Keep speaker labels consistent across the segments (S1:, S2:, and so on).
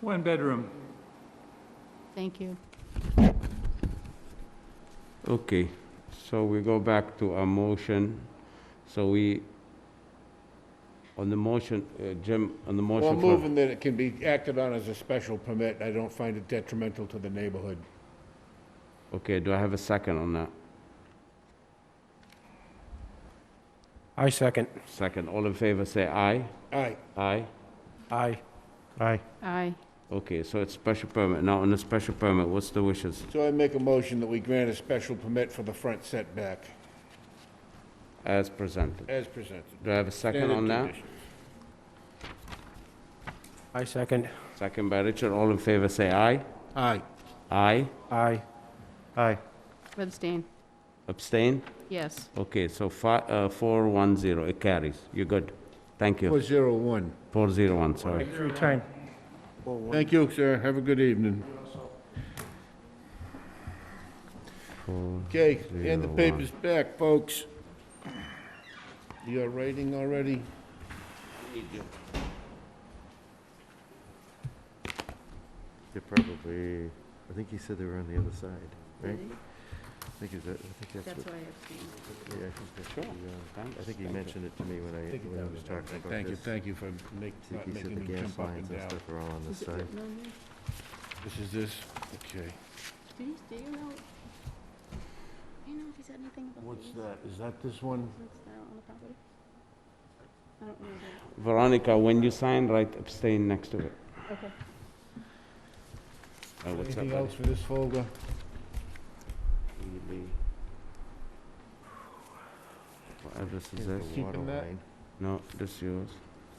S1: One bedroom.
S2: Thank you.
S3: Okay, so we go back to our motion. So we, on the motion, uh, Jim, on the
S4: Well,
S3: motion
S4: I'm
S3: for...
S4: moving that it can be acted on as a special permit, I don't find it detrimental to the neighborhood.
S3: Okay, do I have a second on that?
S5: I second.
S3: Second, all in favor, say aye.
S4: All right,
S3: Aye?
S5: Aye. Aye.
S2: Aye.
S3: Okay, so it's special permit. Now, on the special permit, what's the wishes?
S4: so I make a motion that we grant a special permit for the front setback,
S3: As presented.
S4: as presented.
S3: Do I have a second
S4: Standard
S3: on that?
S4: conditions.
S5: I second.
S3: Second by Richard, all in favor, say aye.
S4: Aye.
S3: Aye?
S5: Aye. Aye.
S2: Abstain.
S3: Abstain?
S2: Yes.
S3: Okay, so fi- uh, 410, it carries. You're good. Thank
S4: Four
S3: you.
S4: zero one.
S3: 401, sorry.
S5: Free time.
S4: Thank you, sir, have a good evening. Okay, and the paper's back, folks. You're writing already?
S6: They're probably, I think he said they were on the other side, right? I think is that, I think that's
S2: That's
S6: what,
S2: why I abstained.
S6: yeah, I think that's
S3: Sure.
S6: what, he, uh,
S3: Thanks,
S6: I think he
S3: thank you.
S6: mentioned it to me when I, when I was talking about this.
S4: Thank you, thank you for make-
S6: I
S4: not
S6: think he said
S4: making
S6: the
S4: me
S6: gas
S4: jump up and
S6: lines and
S4: down.
S6: stuff are all on this
S2: Is it
S6: side.
S2: written on there?
S4: This is this, okay.
S2: Do you, do you know, do you know if he said anything about
S4: What's
S2: these?
S4: that, is that this one?
S2: What's that on the property? I don't know that.
S3: Veronica, when you sign, write abstain next to it.
S2: Okay.
S3: Uh, what's up,
S4: Anything
S3: buddy?
S4: else for this folder?
S3: What address is
S6: Here's the
S3: Uh, this?
S4: Keeping
S6: water
S4: that?
S6: line.
S3: No, this yours.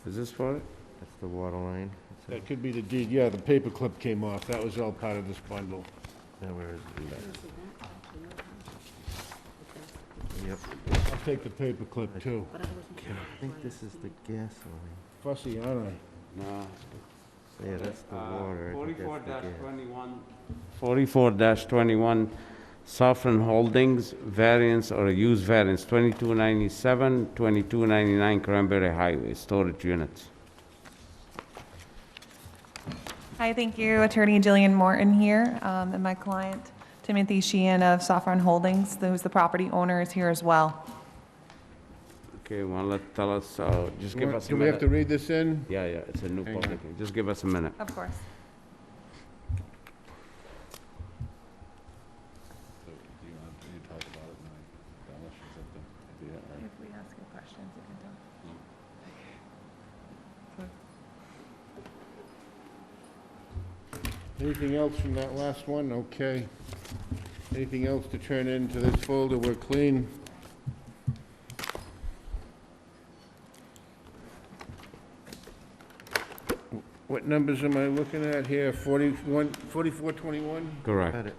S3: Is this for it?
S6: That's the water line. It's a-
S4: That could be the deed, yeah, the paperclip came off, that was all part of this bundle.
S6: Now where is it? Yep,
S4: I'll take the paperclip too.
S2: But I wasn't sure.
S6: I think this is the gas line.
S4: Fussy, aren't I?
S3: No.
S6: So, Yeah, that's the
S4: Uh,
S6: water. I think
S3: Uh, Forty-four
S6: that's the gas.
S3: twenty-one. Forty-four twenty-one, Saffron Holdings, variance or use variance, 2297, 2299 Cranberry Highway, storage units.
S7: Hi, thank you. Attorney Jillian Morton here, um, and my client Timothy Sheehan of Saffron Holdings, who's the property owner, is here as well.
S3: Okay, well, let, tell us, uh, just give us a
S4: Do we have to
S3: minute.
S4: read this in?
S3: Yeah, yeah, it's a new
S4: Hang
S3: public,
S4: on.
S3: hearing. just give us a minute.
S7: Of course. If we ask you questions, you can tell.
S4: Anything else from that last one? Okay. Anything else to turn into this folder? We're clean. What numbers am I looking at here? 41, 4421?
S3: Correct.
S6: Got it.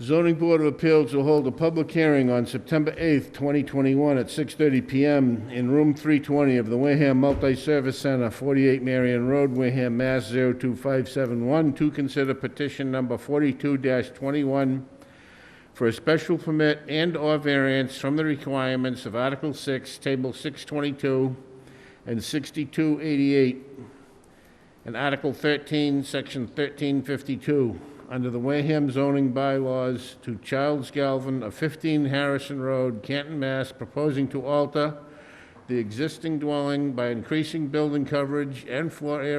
S4: Zoning Board of Appeals will hold a public hearing on September 8th, 2021, at 6:30 PM in Room 320 of the Wareham Multi-Service Center, 48 Marion Road, Wareham, Mass. 02571, to consider petition number 42-21 for a special permit and/or variance from the requirements of Article 6, Table 622, and 6288 and Article 13, Section 1352, under the Wareham zoning bylaws to Charles Galvin of 15 Harrison Road, Canton, Mass., proposing to alter the existing dwelling by increasing building coverage and floor area